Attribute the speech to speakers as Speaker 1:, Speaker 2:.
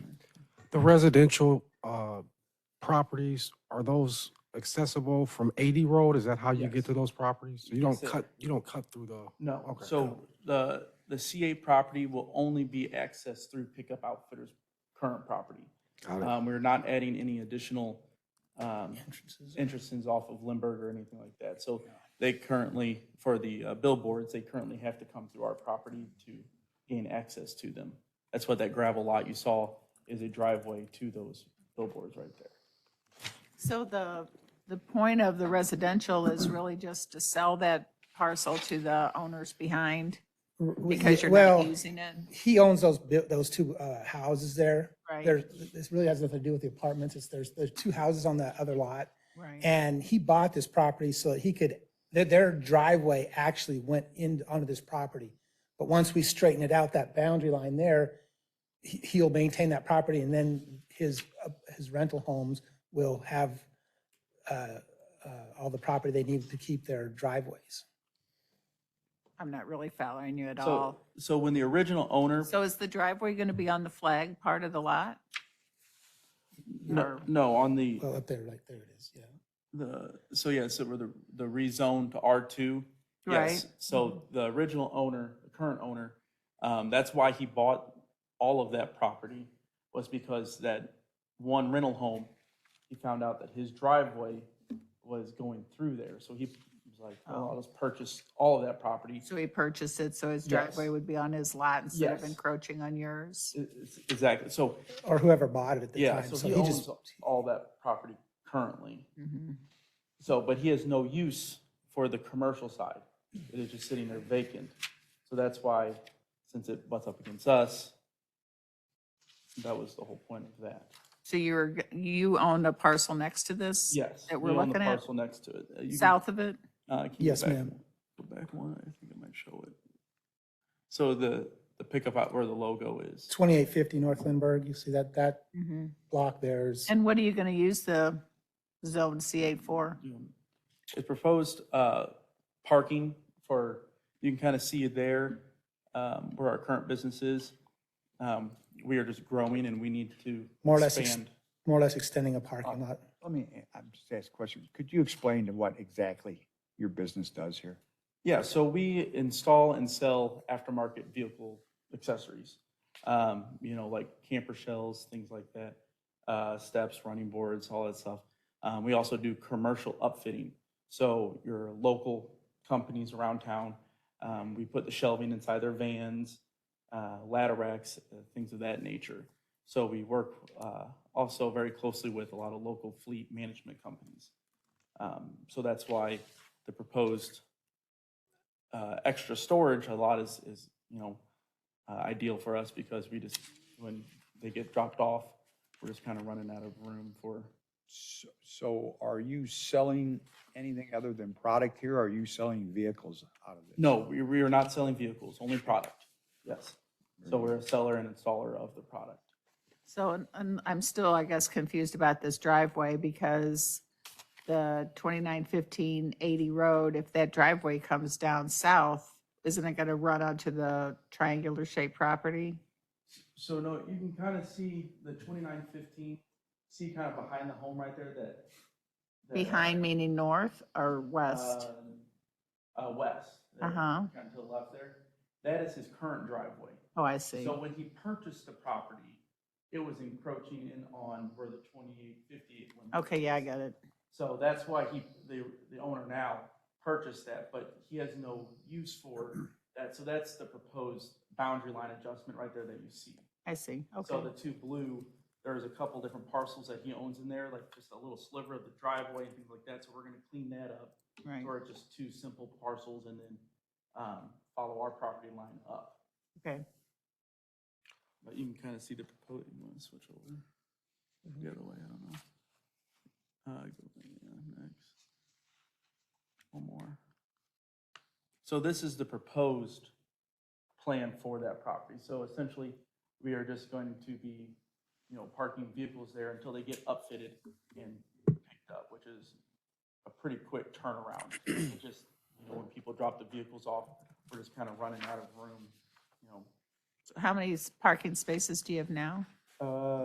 Speaker 1: The residential uh, properties, are those accessible from 80 Road? Is that how you get
Speaker 2: Yes.
Speaker 1: to those properties? You don't
Speaker 2: Yes, sir.
Speaker 1: cut, you don't cut through the,
Speaker 2: No,
Speaker 1: Okay.
Speaker 2: so the, the CA property will only be accessed through Pickup Outfitters' current property.
Speaker 1: got it.
Speaker 2: Um, we're not adding any additional, um, entrances off of Lindbergh or anything like that. So they currently, for the uh, billboards, they currently have to come through our property to gain access to them. That's what that gravel lot you saw is a driveway to those billboards right there.
Speaker 3: So the, the point of the residential is really just to sell that parcel to the owners behind because you're
Speaker 4: Well,
Speaker 3: not using it,
Speaker 4: He owns those, bu- those two uh, houses there.
Speaker 3: Right.
Speaker 4: There, this really has nothing to do with the apartments. It's, there's, there's two houses on the other lot.
Speaker 3: right?
Speaker 4: And he bought this property so that he could, their, their driveway actually went in onto this property. But once we straighten it out, that boundary line there, he, he'll maintain that property and then his, uh, his rental homes will have uh, uh, all the property they need to keep their driveways.
Speaker 3: I'm not really following you at
Speaker 2: So,
Speaker 3: all.
Speaker 2: so when the original owner,
Speaker 3: So is the driveway going to be on the flag part of the lot?
Speaker 2: no, no, on the,
Speaker 4: Well, up there, like, there it is, yeah.
Speaker 2: The, so yeah, so we're the, the rezone to R2. Yes.
Speaker 3: Right.
Speaker 2: So the original owner, the current owner, um, that's why he bought all of that property was because that one rental home, he found out that his driveway was going through there. So he was like, oh, I'll just purchase all of that property.
Speaker 3: So he purchased it, so his
Speaker 2: Yes.
Speaker 3: driveway would be on his lot instead of
Speaker 2: Yes.
Speaker 3: encroaching on yours?
Speaker 2: E- e- Exactly. So,
Speaker 4: Or whoever bought it at the
Speaker 2: yeah,
Speaker 4: time.
Speaker 2: so
Speaker 4: So
Speaker 2: he
Speaker 4: he just,
Speaker 2: owns all that property currently.
Speaker 3: Mhm.
Speaker 2: So, but he has no use for the commercial side. It is just sitting there vacant. So that's why, since it butts up against us, that was the whole point of that.
Speaker 3: So you were, g- you own a parcel next to this?
Speaker 2: Yes.
Speaker 3: That we're
Speaker 2: we own the
Speaker 3: looking at,
Speaker 2: Parcel next to it. Uh, you can-
Speaker 3: south of it?
Speaker 2: uh, can you go
Speaker 4: Yes,
Speaker 2: back
Speaker 4: ma'am.
Speaker 2: one? Go back one, I think I might show it. So the, the pickup out where the logo is,
Speaker 4: 2850 North Lindbergh, you see that, that
Speaker 2: Mm-hmm.
Speaker 3: Mhm.
Speaker 4: block there's.
Speaker 3: And what are you going to use the zone C8 for?
Speaker 2: it's proposed uh, parking for, you can kind of see it there um, where our current business is. Um, We are just growing and we need to
Speaker 4: More or less ex-
Speaker 2: expand.
Speaker 4: more or less extending a
Speaker 2: Uh,
Speaker 4: parking lot.
Speaker 5: Let me, eh, I'm just asking a question. Could you explain to what exactly your business does here?
Speaker 2: Yeah, so we install and sell aftermarket vehicle accessories. Um, you know, like camper shells, things like that, uh, steps, running boards, all that stuff. Um, we also do commercial upfitting. So your local companies around town, um, we put the shelving inside their vans, uh, ladder racks, uh, things of that nature. So we work uh, also very closely with a lot of local fleet management companies. Um, so that's why the proposed uh, extra storage a lot is, is you know, uh, ideal for us because we just, when they get dropped off, we're just kind of running out of room for,
Speaker 5: S- So are you selling anything other than product here? Are you selling vehicles out of this?
Speaker 2: no, we, we are not selling vehicles, only product. Yes. So we're a seller and installer of the product.
Speaker 3: So and- and I'm still, I guess, confused about this driveway because the 2915 80 road, if that driveway comes down south, isn't it going to run onto the triangular shaped property?
Speaker 2: So no, you can kind of see the twenty-nine fifteen, see kind of behind the home right there that. that, uh,
Speaker 3: Behind meaning north or west?
Speaker 2: um, Uh, west. there,
Speaker 3: Uh-huh.
Speaker 2: Kind of to the left there. That is his current driveway.
Speaker 3: Oh, I see.
Speaker 2: So when he purchased the property, it was encroaching in on where the twenty-eight fifty-eight.
Speaker 3: Okay, yeah, I got it.
Speaker 2: So that's why he, the, the owner now purchased that, but he has no use for that. So that's the proposed boundary line adjustment right there that you see.
Speaker 3: I see. Okay.
Speaker 2: So the two blue, there's a couple different parcels that he owns in there, like just a little sliver of the driveway and things like that. So we're gonna clean that up.
Speaker 3: Right.
Speaker 2: Or just two simple parcels and then, um, follow our property line up.
Speaker 3: Okay.
Speaker 2: But you can kind of see the proposed, you want to switch over? The other way, I don't know. Uh, go, yeah, next. One more. So this is the proposed plan for that property. So essentially, we are just going to be, you know, parking vehicles there until they get upfitted and picked up, which is a pretty quick turnaround. It Just, you know, when people drop the vehicles off, we're just kind of running out of room, you know,
Speaker 3: How many s- parking spaces do you have now?
Speaker 2: uh,